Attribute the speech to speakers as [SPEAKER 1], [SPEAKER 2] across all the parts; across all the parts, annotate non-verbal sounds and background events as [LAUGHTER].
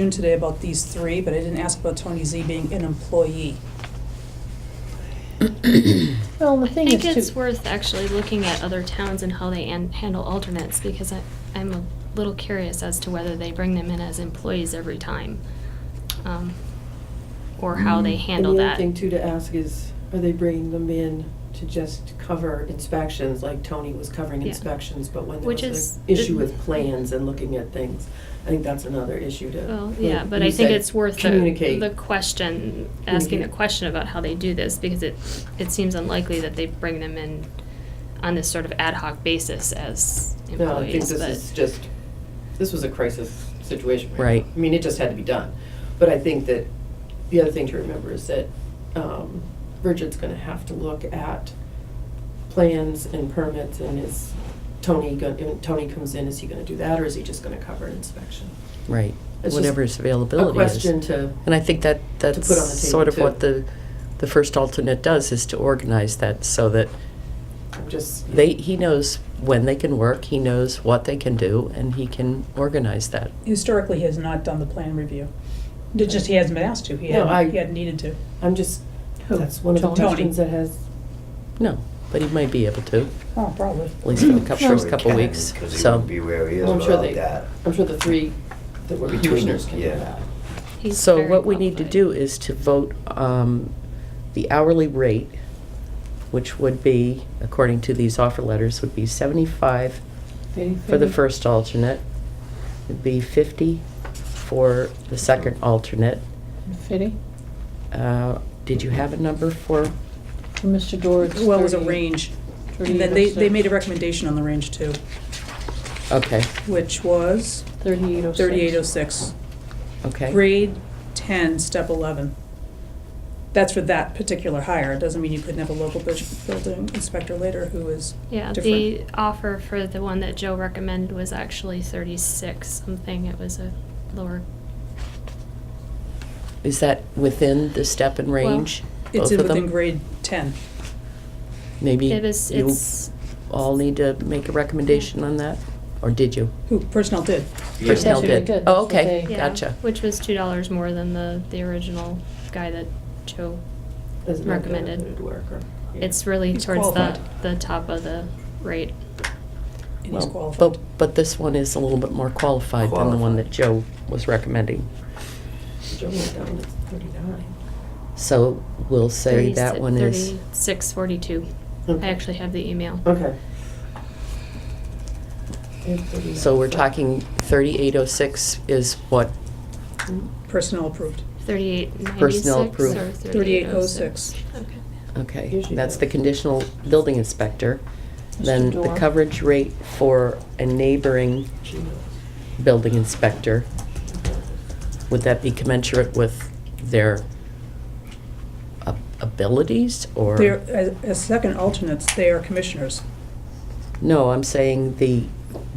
[SPEAKER 1] June today about these three, but I didn't ask about Tony Z being an employee.
[SPEAKER 2] Well, the
[SPEAKER 3] I
[SPEAKER 2] thing
[SPEAKER 3] think
[SPEAKER 2] is
[SPEAKER 3] it's
[SPEAKER 2] too,
[SPEAKER 3] worth actually looking at other towns and how they an- handle alternates, because I, I'm a little curious as to whether they bring them in as employees every time. um, Or how they handle
[SPEAKER 4] Mm, And the other
[SPEAKER 3] that.
[SPEAKER 4] thing too to ask is, are they bringing them in to just cover inspections, like Tony was covering
[SPEAKER 3] Yeah.
[SPEAKER 4] inspections, but when there
[SPEAKER 3] Which
[SPEAKER 4] was
[SPEAKER 3] is-
[SPEAKER 4] an issue with plans and looking at things? I think that's another issue to.
[SPEAKER 3] Well,
[SPEAKER 4] like
[SPEAKER 3] yeah, but
[SPEAKER 4] you
[SPEAKER 3] I
[SPEAKER 4] said,
[SPEAKER 3] think it's worth the,
[SPEAKER 4] Communicate.
[SPEAKER 3] the question, asking the
[SPEAKER 4] Communicate.
[SPEAKER 3] question about how they do this, because it, it seems unlikely that they bring them in on this sort of ad hoc basis as
[SPEAKER 4] No, I think
[SPEAKER 3] employees,
[SPEAKER 4] this is
[SPEAKER 3] but,
[SPEAKER 4] just, this was a crisis situation. now.
[SPEAKER 5] Right.
[SPEAKER 4] I mean, it just had to be done. But I think that, the other thing to remember is that um, Richard's gonna have to look at plans and permits and is Tony, go- if Tony comes in, is he gonna do that or is he just gonna cover an inspection?
[SPEAKER 5] Right,
[SPEAKER 4] It's just
[SPEAKER 5] whatever his availability
[SPEAKER 4] A
[SPEAKER 5] is.
[SPEAKER 4] question to,
[SPEAKER 5] And I think that, that's
[SPEAKER 4] put on the table,
[SPEAKER 5] sort of what
[SPEAKER 4] too.
[SPEAKER 5] the, the first alternate does, is to organize that so that
[SPEAKER 4] I'm just.
[SPEAKER 5] they, he knows when they can work, he knows what they can do, and he can organize that.
[SPEAKER 1] Historically, he has not done the plan review. It just, he hasn't been asked to, he
[SPEAKER 4] No, I-
[SPEAKER 1] hadn't, he hadn't needed to.
[SPEAKER 4] I'm just,
[SPEAKER 2] Who?
[SPEAKER 4] that's one of the
[SPEAKER 1] Tony?
[SPEAKER 4] questions that has,
[SPEAKER 5] No, but he might be able to,
[SPEAKER 1] Oh, probably.
[SPEAKER 5] at least for the cou-
[SPEAKER 6] [CLEARS THROAT]
[SPEAKER 2] Sure
[SPEAKER 5] first
[SPEAKER 2] he
[SPEAKER 5] couple
[SPEAKER 2] can,
[SPEAKER 5] weeks,
[SPEAKER 6] Because he
[SPEAKER 5] so.
[SPEAKER 6] wouldn't be where he is
[SPEAKER 4] Well, I'm sure
[SPEAKER 6] without
[SPEAKER 4] they-
[SPEAKER 6] that.
[SPEAKER 4] I'm sure the three that were
[SPEAKER 6] Between,
[SPEAKER 4] commissioners can do
[SPEAKER 6] yeah.
[SPEAKER 4] that.
[SPEAKER 3] he's
[SPEAKER 5] So
[SPEAKER 3] very
[SPEAKER 5] what we need to
[SPEAKER 3] qualified.
[SPEAKER 5] do is to vote um, the hourly rate, which would be, according to these offer letters, would be seventy-five for the first alternate. It'd be 50 for the second alternate.
[SPEAKER 2] Fitty,
[SPEAKER 5] Uh, Did you have a number for,
[SPEAKER 2] Mr. Dorr, it's
[SPEAKER 1] Well, it was a
[SPEAKER 2] 30
[SPEAKER 1] range.
[SPEAKER 2] thirty
[SPEAKER 1] And then they, they
[SPEAKER 2] upstairs.
[SPEAKER 1] made a recommendation on the range too,
[SPEAKER 5] okay,
[SPEAKER 1] which was
[SPEAKER 2] 3806.
[SPEAKER 1] thirty-eight oh six.
[SPEAKER 5] okay.
[SPEAKER 1] Grade ten, step eleven. That's for that particular hire, it doesn't mean you couldn't have a local bu- building inspector later who is
[SPEAKER 3] Yeah,
[SPEAKER 1] different.
[SPEAKER 3] the offer for the one that Joe recommended was actually thirty-six something, it was a lower.
[SPEAKER 5] Is that within the step and
[SPEAKER 3] Well,
[SPEAKER 5] range?
[SPEAKER 1] It's
[SPEAKER 5] both of
[SPEAKER 1] within
[SPEAKER 5] them?
[SPEAKER 1] grade ten.
[SPEAKER 5] Maybe
[SPEAKER 3] It was,
[SPEAKER 5] you
[SPEAKER 3] it's,
[SPEAKER 5] all need to make a recommendation on that? Or did you?
[SPEAKER 1] Who, personnel did.
[SPEAKER 6] Yeah.
[SPEAKER 2] That's
[SPEAKER 5] Personnel
[SPEAKER 2] what they
[SPEAKER 5] did.
[SPEAKER 2] did.
[SPEAKER 5] Oh,
[SPEAKER 2] That's what
[SPEAKER 5] okay,
[SPEAKER 2] they-
[SPEAKER 3] yeah,
[SPEAKER 5] gotcha.
[SPEAKER 3] which was two dollars more than the, the original guy that Joe.
[SPEAKER 4] As an
[SPEAKER 3] Recommended.
[SPEAKER 4] undocumented worker. Yeah.
[SPEAKER 3] It's really
[SPEAKER 1] He's
[SPEAKER 3] towards the,
[SPEAKER 1] qualified.
[SPEAKER 3] the top of the rate.
[SPEAKER 1] And he's
[SPEAKER 5] Well,
[SPEAKER 1] qualified.
[SPEAKER 5] but, but this one is a little bit more qualified than the one that Joe
[SPEAKER 6] Qualified.
[SPEAKER 5] was recommending.
[SPEAKER 4] Joe went down to thirty-nine.
[SPEAKER 5] So we'll say that one is,
[SPEAKER 3] Thirty-six forty-two. I
[SPEAKER 4] Okay.
[SPEAKER 3] actually have the email.
[SPEAKER 4] Okay. And 39.
[SPEAKER 5] so we're talking 3806 is what
[SPEAKER 4] Hmm?
[SPEAKER 1] Personnel approved.
[SPEAKER 3] Thirty-eight ninety-six
[SPEAKER 5] Personnel
[SPEAKER 3] or
[SPEAKER 5] approved.
[SPEAKER 3] thirty-eight oh six?
[SPEAKER 1] 3806.
[SPEAKER 3] Okay.
[SPEAKER 5] Okay,
[SPEAKER 4] Usually
[SPEAKER 5] that's the
[SPEAKER 4] that-
[SPEAKER 5] conditional building inspector. Then
[SPEAKER 2] Mr.
[SPEAKER 5] the
[SPEAKER 2] Dorr.
[SPEAKER 5] coverage rate for a neighboring
[SPEAKER 4] She knows.
[SPEAKER 5] building inspector, would that be commensurate with their ab- abilities or?
[SPEAKER 1] They're, as, as second alternates, they are commissioners.
[SPEAKER 5] No, I'm saying the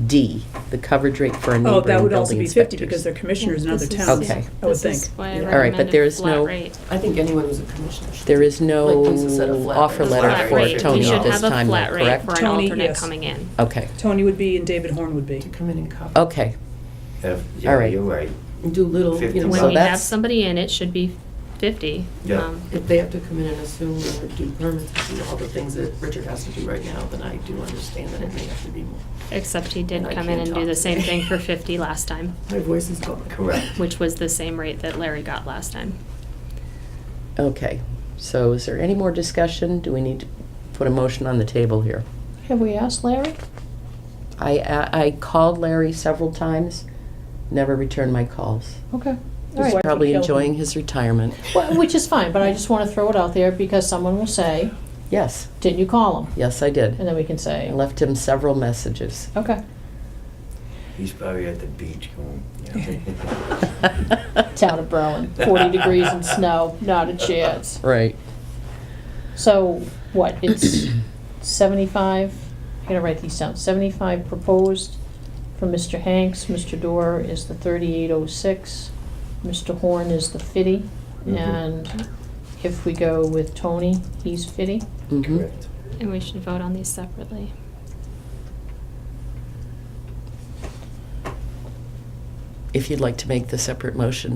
[SPEAKER 5] D, the coverage rate for a
[SPEAKER 1] Oh,
[SPEAKER 5] neighboring building inspector.
[SPEAKER 1] that would also be fifty because they're commissioners in
[SPEAKER 3] Yeah,
[SPEAKER 1] other
[SPEAKER 3] this is-
[SPEAKER 1] towns,
[SPEAKER 5] Okay.
[SPEAKER 1] I would
[SPEAKER 3] This is
[SPEAKER 1] think.
[SPEAKER 3] why I
[SPEAKER 4] Yeah.
[SPEAKER 5] All right, but there
[SPEAKER 3] recommended
[SPEAKER 5] is
[SPEAKER 3] flat
[SPEAKER 5] no-
[SPEAKER 3] rate.
[SPEAKER 4] I think anyone who's a commissioner. should-
[SPEAKER 5] There is
[SPEAKER 4] Like Lisa said, a
[SPEAKER 5] no
[SPEAKER 4] flat
[SPEAKER 5] offer
[SPEAKER 4] rate.
[SPEAKER 5] letter
[SPEAKER 3] Flat
[SPEAKER 5] for
[SPEAKER 3] rate. We
[SPEAKER 5] Tony
[SPEAKER 3] should
[SPEAKER 5] at this
[SPEAKER 3] have a
[SPEAKER 5] time, though,
[SPEAKER 3] flat rate
[SPEAKER 5] correct?
[SPEAKER 3] For an
[SPEAKER 1] Tony,
[SPEAKER 3] alternate
[SPEAKER 1] yes.
[SPEAKER 3] coming in.
[SPEAKER 5] Okay,
[SPEAKER 1] Tony would be and David Horn would be.
[SPEAKER 4] To come in and cover.
[SPEAKER 5] okay,
[SPEAKER 6] If-
[SPEAKER 5] All
[SPEAKER 6] Yeah,
[SPEAKER 5] right.
[SPEAKER 6] you're right.
[SPEAKER 4] And do little, you know,
[SPEAKER 6] So
[SPEAKER 3] When we have
[SPEAKER 5] that's-
[SPEAKER 3] somebody in, it should be fifty.
[SPEAKER 6] Yeah.
[SPEAKER 3] um,
[SPEAKER 4] if they have to come in and assume or do permits, and do all the things that Richard has to do right now, then I do understand that it may have to be more.
[SPEAKER 3] Except he did
[SPEAKER 4] And I
[SPEAKER 3] come in
[SPEAKER 4] can't
[SPEAKER 3] and do
[SPEAKER 4] talk
[SPEAKER 3] the same
[SPEAKER 4] today.
[SPEAKER 3] thing for fifty last time,
[SPEAKER 4] My voice is gone.
[SPEAKER 6] Correct.
[SPEAKER 3] which was the same rate that Larry got last time.
[SPEAKER 5] okay. So is there any more discussion? Do we need to put a motion on the table here?
[SPEAKER 2] Have we asked Larry?
[SPEAKER 5] I, I I called Larry several times, never returned my calls.
[SPEAKER 2] Okay,
[SPEAKER 1] His
[SPEAKER 2] all right.
[SPEAKER 5] He's
[SPEAKER 1] wife would
[SPEAKER 5] probably
[SPEAKER 1] kill him.
[SPEAKER 5] enjoying his retirement.
[SPEAKER 2] Well, Which is fine, but I just want to throw it out there because someone will say,
[SPEAKER 5] Yes,
[SPEAKER 2] didn't you call him?
[SPEAKER 5] yes, I did.
[SPEAKER 2] And then we can say,
[SPEAKER 5] I left him several messages.
[SPEAKER 2] okay,
[SPEAKER 6] He's probably at the beach going,
[SPEAKER 2] town of Berlin, 40 degrees and snow, not
[SPEAKER 6] [LAUGHS]
[SPEAKER 2] a chance.
[SPEAKER 5] Right.
[SPEAKER 2] So, what, it's seventy-five, I gotta write these down, seventy-five proposed from Mr. Hanks, Mr. Dorr is the thirty-eight oh six, Mr. Horn is the fitty,
[SPEAKER 6] Mhm.
[SPEAKER 2] and if we go with Tony, he's fitty.
[SPEAKER 5] Mhm.
[SPEAKER 6] Correct.
[SPEAKER 3] And we should vote on these separately.
[SPEAKER 5] if you'd like to make the separate motion